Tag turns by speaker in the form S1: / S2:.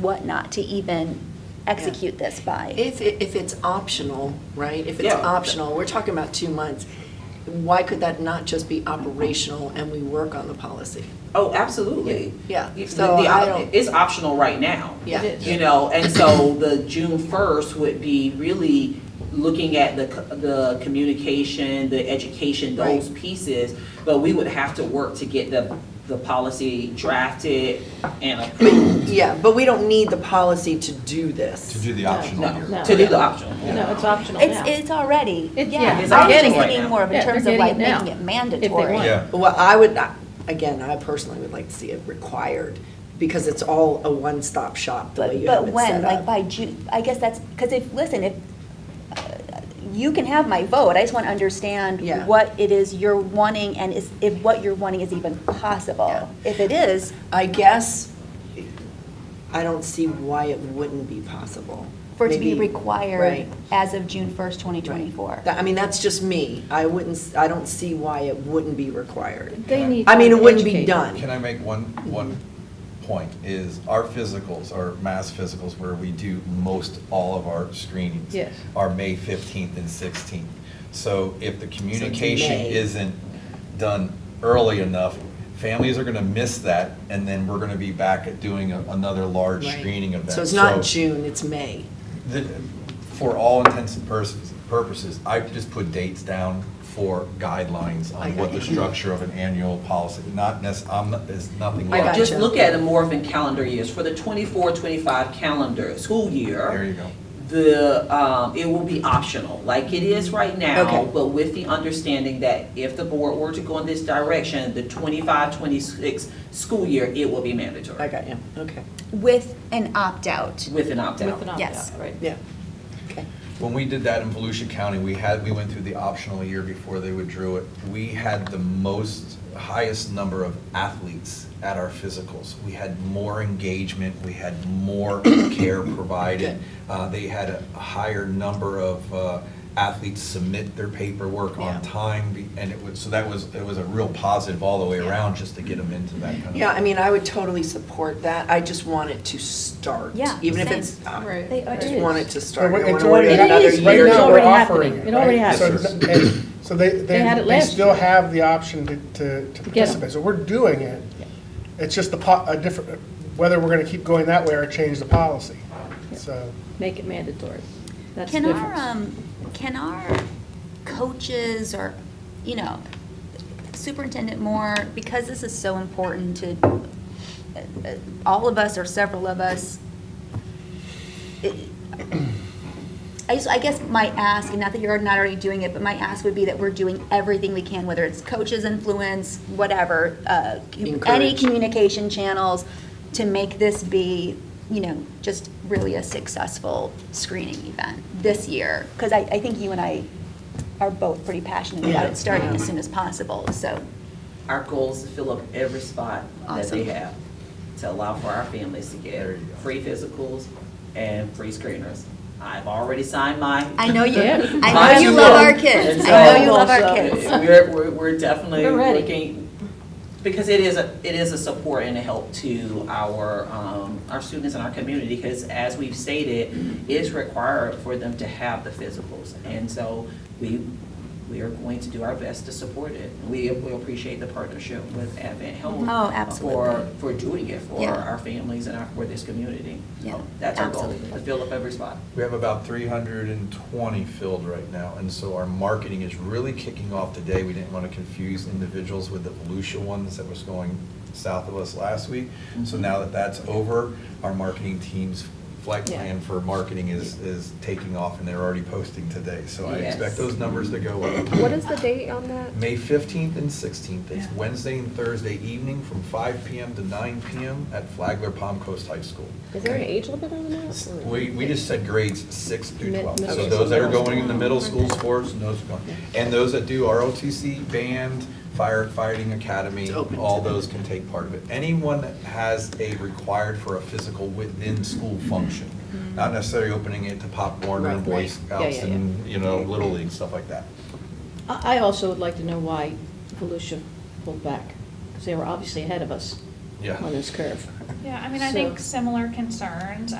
S1: what not to even execute this by.
S2: If, if it's optional, right, if it's
S3: Yeah.
S2: optional, we're talking about two months, why could that not just be operational and we work on the policy?
S3: Oh, absolutely.
S2: Yeah,
S3: You-
S2: so
S3: the- the
S2: I
S3: op-
S2: don't-
S3: It's optional right now.
S2: Yeah. It is.
S3: You know, and so the June first would be really looking at the, co- the communication, the education, those pieces. But we would have to work to get the, the policy drafted and approved.
S2: Yeah, but we don't need the policy to do
S4: To
S2: this.
S4: do the optional here.
S3: No, to do the optional.
S5: No, it's optional
S1: It's,
S5: now.
S1: it's already,
S5: It's-
S1: yeah.
S5: yeah,
S1: I
S5: it's
S1: was
S3: already
S1: just
S3: right
S1: thinking
S3: now.
S1: more of in
S5: Yeah, they're
S1: terms of
S5: getting
S1: like
S5: it now,
S1: making it
S5: if they
S1: mandatory.
S5: want.
S4: Yeah.
S2: Well, I would, I- again, I personally would like to see it required, because it's all a one-stop shop, the way
S1: But,
S2: you
S1: but
S2: have it
S1: when,
S2: set
S1: like
S2: up.
S1: by June, I guess that's, because if, listen, if, uh, you can have my vote, I just want to understand
S2: Yeah.
S1: what it is you're wanting and is, if what you're wanting is even
S2: Yeah.
S1: possible. If it is,
S2: I guess, I don't see why it wouldn't be possible.
S1: for it to be
S2: Maybe-
S1: required
S2: Right.
S1: as of June 1st,
S2: Right.
S1: 2024.
S2: That- I mean, that's just me. I wouldn't, s- I don't see why it wouldn't be required.
S5: They need
S2: I mean,
S5: time
S2: it
S5: to
S2: wouldn't be
S5: educate.
S2: done.
S4: Can I make one, one point, is our physicals, our mass physicals, where we do most all of our screenings.
S5: Yes.
S4: Are May 15th and 16th. So if the communication
S2: May.
S4: isn't done early enough, families are going to miss that, and then we're going to be back at doing a- another large
S2: Right.
S4: screening event.
S2: So it's not June, it's May.
S4: the- For all intents and pers- purposes, I just put dates down for guidelines
S2: I
S4: on
S2: got
S4: what the
S2: you.
S4: structure of an annual policy, not necess, I'm, not- there's nothing
S2: I
S4: wrong.
S2: got
S3: Just
S2: you.
S3: look at it more of in calendar years, for the 24-25 calendar, school year.
S4: There you go.
S3: the, um, it will be optional, like it is right now,
S2: Okay.
S3: but with the understanding that if the board were to go in this direction, the 25-26 school year, it will be mandatory.
S2: I got you. Okay.
S1: With an opt-out.
S3: With an opt-out.
S5: With an opt-out,
S1: Yes.
S5: right?
S2: Yeah. Okay.
S4: When we did that in Volusia County, we had, we went through the optional year before they withdrew it. We had the most, highest number of athletes at our physicals. We had more engagement, we had more care provided. Uh, They had a higher number of uh, athletes submit their paperwork on
S2: Yeah.
S4: time. be- And it was, so that was, it was a real positive all the way around just to get them into that kind of.
S2: Yeah, I mean, I would totally support that. I just want it to start.
S1: Yeah,
S2: Even if
S1: same.
S2: it's, I
S5: Right.
S1: They are-
S2: just
S1: It
S2: want
S1: is.
S2: it to start. I
S6: It's
S2: don't wanna
S6: already-
S2: wait
S5: It
S2: another
S5: is.
S2: year.
S5: Right
S6: Right
S5: now,
S6: now, we're
S5: already
S6: offering
S5: happening.
S6: it.
S5: It already
S6: right? So
S4: happened.
S6: n- and- So they,
S5: They had
S6: they,
S5: it
S6: they
S5: last
S6: still
S5: year.
S6: have the option to- to, to
S5: get 'em.
S6: participate. So we're doing it. It's just the, po- a different, whether we're going to keep going that way or change the policy. So,
S5: Make it mandatory. That's the
S1: Can our,
S5: difference.
S1: um, can our coaches or, you know, Superintendent Moore, because this is so important to, uh, uh, all of us or several of us, it- I just, I guess my ask, and not that you're not already doing it, but my ask would be that we're doing everything we can, whether it's coaches, influence, whatever, uh, any
S2: Encourage.
S1: communication channels, to make this be, you know, just really a successful screening event this year. Because I, I think you and I are both pretty passionate about
S2: Yeah.
S1: it starting as soon as possible, so.
S3: Our goal is to fill up every spot that they
S1: Awesome.
S3: have, to allow for our families to get
S4: There you go.
S3: free physicals and free screeners. I've already signed mine.
S1: I know you,
S5: Yeah.
S1: I know you love our kids. I know you love our kids.
S3: We're, we're, we're definitely
S5: We're ready.
S3: looking, because it is a, it is a support and a help to our, um, our students and our community, because as we've stated, it's required for them to have the physicals. And so we, we are going to do our best to support it. We, we appreciate the partnership with Advent Health.
S1: Oh, absolutely.
S3: For, for doing it for
S1: Yeah.
S3: our families and our, for this community.
S1: Yeah,
S3: That's our goal, to
S1: absolutely.
S3: fill up every spot.
S4: We have about 320 filled right now, and so our marketing is really kicking off today. We didn't want to confuse individuals with the Volusia ones that was going south of us last week. So now that that's over, our marketing team's flight
S5: Yeah.
S4: plan for marketing is, is taking off, and they're already posting today. So I
S3: Yes.
S4: expect those numbers to go up.
S7: What is the date on that?
S4: May 15th and 16th, it's Wednesday and Thursday evening from 5 PM to 9 PM at Flagler Palm Coast High School.
S7: Is there an age limit on that?
S4: We, we just said grades six through
S7: Mid-
S4: 12. So
S7: middle
S4: those that are
S7: school.
S4: going in the middle school sports, and those are going. And those that do ROTC, band, firefighting academy,
S2: It's open to
S4: all
S2: them.
S4: those can take part of it. Anyone that has a required for a physical within school function,
S7: Mm-hmm.
S4: not necessarily opening it to Pop Warner
S2: Right,
S4: and Boy
S2: right.
S5: Yeah,
S4: Scouts
S5: yeah,
S4: and, you know, Little League, stuff like that.
S5: I I also would like to know why Volusia pulled back, because they were obviously ahead of us
S4: Yeah.
S5: on this curve.
S8: Yeah, I mean, I think similar concerns.